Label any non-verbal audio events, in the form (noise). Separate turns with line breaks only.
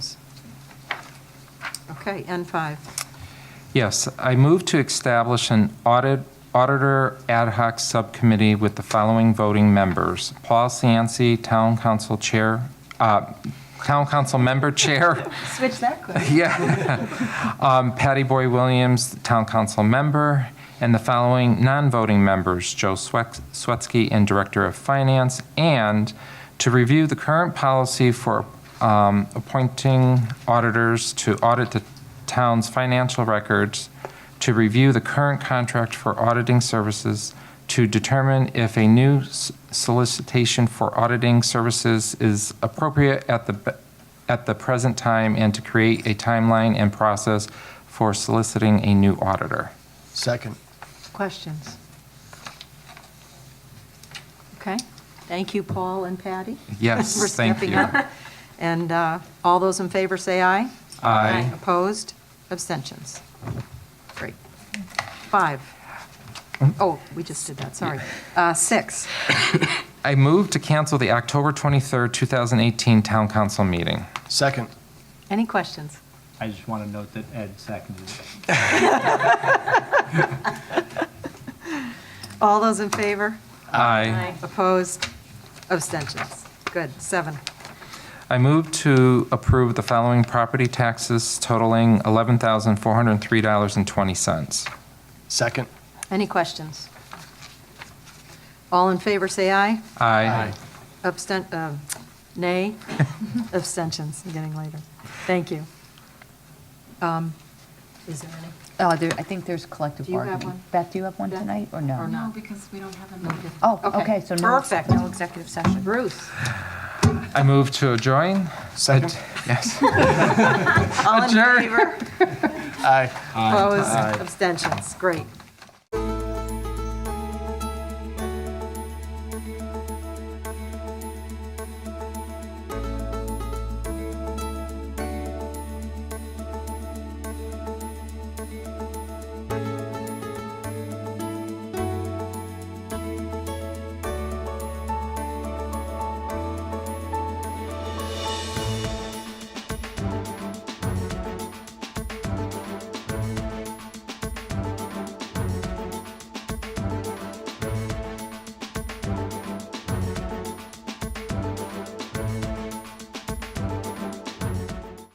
Okay, N5.
Yes, I move to establish an audit, auditor ad hoc subcommittee with the following voting members. Paul Sansi, Town Council Chair, uh, Town Council Member Chair,
Switch that quick.
yeah. Um, Patty Boy Williams, Town Council Member, and the following non-voting members, Joe Swet- Swetsky and Director of Finance, and to review the current policy for um, appointing auditors to audit the town's financial records, to review the current contract for auditing services, to determine if a new s- solicitation for auditing services is appropriate at the be- at the present time and to create a timeline and process for soliciting a new auditor.
Second.
Questions? Okay, thank you, Paul and Patty.
Yes,
(laughs) for
thank
stepping
you.
up. And uh, all those in favor say aye.
Aye.
Opposed? Abstentions? Great. Five. Oh, we just did that, sorry. Uh, Six.
I move to cancel the October 23rd, 2018 Town Council meeting.
Second.
Any questions?
I just want to note that Ed seconded it.
All those in favor?
Aye.
Opposed? Abstentions? Good, seven.
I move to approve the following property taxes totaling $11,403.20.
Second.
Any questions? All in favor, say aye.
Aye.
Abstent, uh, nay, abstentions, I'm getting later. Thank you. Um, Is there any?
Oh, there, I think there's collective
Do you have
bargaining.
one?
Beth, do you have one
Beth?
tonight, or no?
Or no?
No, because we don't have a meeting.
Oh, okay, so no.
Perfect.
No executive session.
Bruce,
I move to adjourn.
Second.
Yes.
all in
Adjourn.
favor?
Aye.
Opposed, abstentions, great.